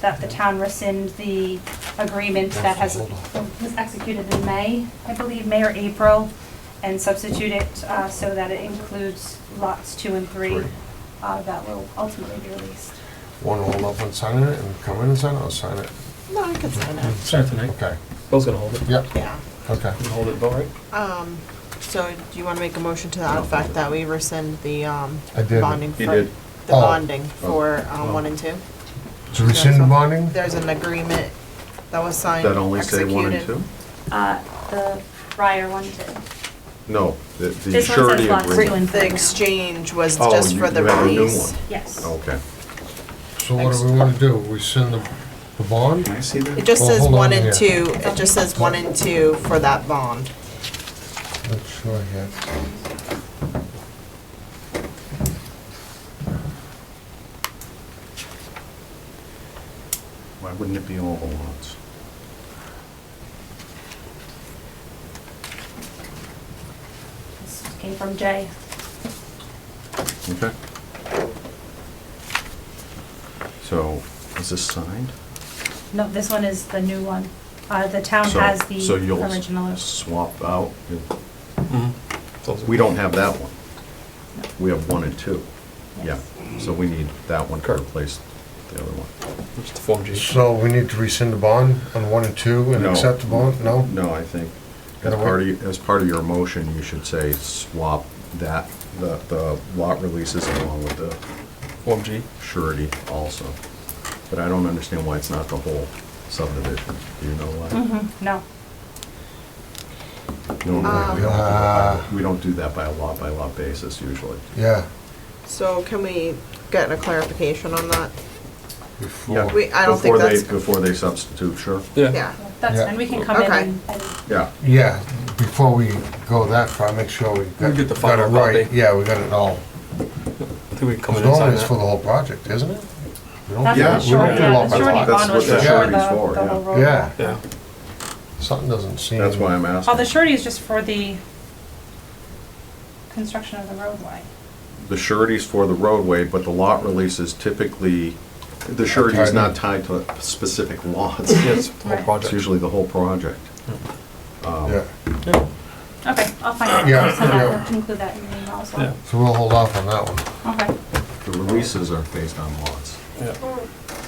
that the town rescind the agreement that has, was executed in May, I believe, May or April, and substitute it uh, so that it includes lots two and three Three. uh, that will ultimately be released. Want to hold up and sign it and come in and sign it or sign it? No, I can sign it. Start tonight. Okay, Bill's gonna hold it. yep, Yeah. okay. You Hold it, Bill, right? Um, so do you want to make a motion to the fact that we rescind the, um, I did. bonding He for- did. The Oh. bonding for, Oh. um, one and two? To rescind the bonding? There's an agreement that was signed, That only say one and two? executed. Uh, The prior one did. No, the the This one says surety lot agreement. two. The exchange was Oh, just you- for the you have a new release. one. Yes. Okay. So what do we want to do? Rescind the, the bond? I see It that? just Well, says hold on one and here. two, it just says one and two for that bond. Not sure yet. Why wouldn't it be all the lots? This Came from Jay. Okay. So, is this signed? No, this one is the new one. Uh, The town So- has the So you'll original. swap out, Mm-hmm. we don't have that one. We have one and two. Yeah, so we need that one to Correct. replace the other one. It's the Form G. So we need to rescind the bond on one and two and No. accept the bond? No? No, I think, as Gotta part of, wait. y- as part of your motion, you should say swap that, the, the lot releases along with the Form G. surety also. But I don't understand why it's not the whole subdivision. Do you know Mm-hmm. why? Mhm, No. Normally, we don't do that Ah. by- we don't do that by a lot by lot basis usually. Yeah. So can we get a clarification on that? Before. We- I don't think Before they- that's- Before they substitute, sure. Yeah, That's, Yeah. and we can come in Okay. and- and Yeah, Yeah, before we go that far, make sure we got We get the got it final right. copy. Yeah, we got it all. I think we can come Because in and normally sign it's for the that. whole project, isn't it? We don't- That's we Oh, Yeah, what don't the we surety, do yeah, lot the by lot. surety That's bond what was the just for surety the, is for, the whole yeah. road. Yeah. Yeah. Something doesn't seem. that's why I'm asking. Oh, the surety is just for the construction of the roadway. the surety's for the roadway, but the lot releases typically, the surety is not tied to specific lots. Yeah, it's the whole Right. It's project. usually the whole project. Um, Yeah, Yeah. Okay, I'll find out. Yeah, I'll send that- yeah. I'll include that in the email as Yeah. well. so we'll hold off on that one. Okay, The releases are based on lots. Yeah.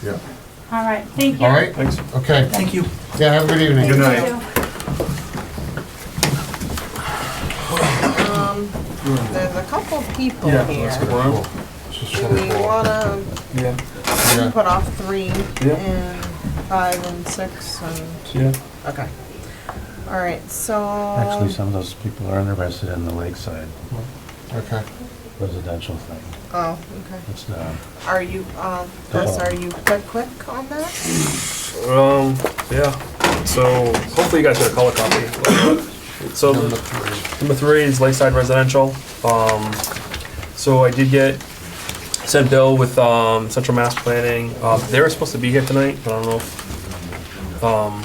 Yeah. all right, thank you. All right, Thanks. okay. Thank you. Yeah, have a good evening. Thank you. night. um, there's a couple people Yeah, here. let's go. Cool. This is Do we wonderful. wanna Yeah. Yeah. put off three Yeah. and five and six and, Yeah. okay. All right, so. Actually, some of those people are interested in the lakeside Okay. residential thing. Oh, okay. It's not, Are you, uh, Chris, are you quick, quick on that? Um, yeah. So hopefully you guys get a color copy. So Number three. Number three is Lakeside Residential. Um, so I did get sent bill with, um, Central Mass Planning. Um, they were supposed to be here tonight, but I don't know if, um,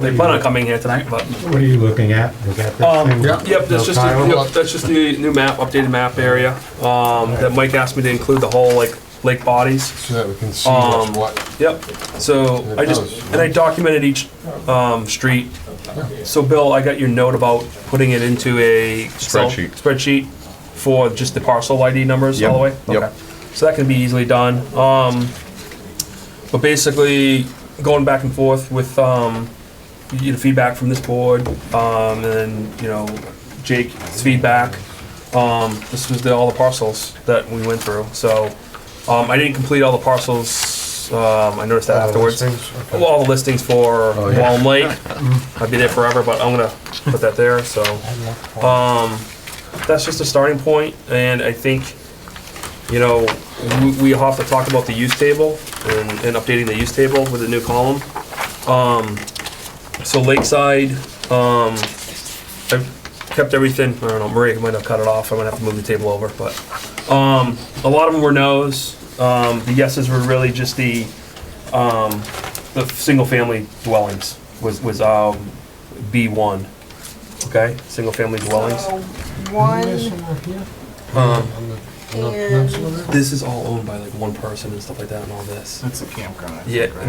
they plan on coming here tonight, but. what are you looking at? Is that Um, the thing? yeah. Yep, that's just, Kyle, the- yep, what- that's just the new map, updated map area, um, that Mike asked me to include the whole, like, lake bodies. So that we can see what's Um, what. Yep, so I just, and I documented each, um, street. So Bill, I got your note about putting it into a. Excel Spreadsheet. Spreadsheet for just the parcel ID numbers all the way? Yep, yep. Okay. So that can be easily done. Um, but basically, going back and forth with, um, you get feedback from this board, um, and then, you know, Jake's feedback. Um, this was the, all the parcels that we went through, so, um, I didn't complete all the parcels, um, I noticed that All those afterwards. things. Well, all the listings for Oh, yeah. Wallam Lake. I'd be there forever, but I'm gonna put that there, so. Okay. Um, that's just a starting point, and I think, you know, we, we have to talk about the use table and, and updating the use table with a new column. Um, so Lakeside, um, I've kept everything, I don't know, Maria might have cut it off, I'm gonna have to move the table over, but, um, a lot of them were no's. Um, the yeses were really just the, um, the single-family dwellings was, was, um, B one, okay? Single-family dwellings. So, One, Missing right here. Um, On the- Not- not some of that? This is all owned by like one person and stuff like that and all this. That's a campground. I think, Yeah, right?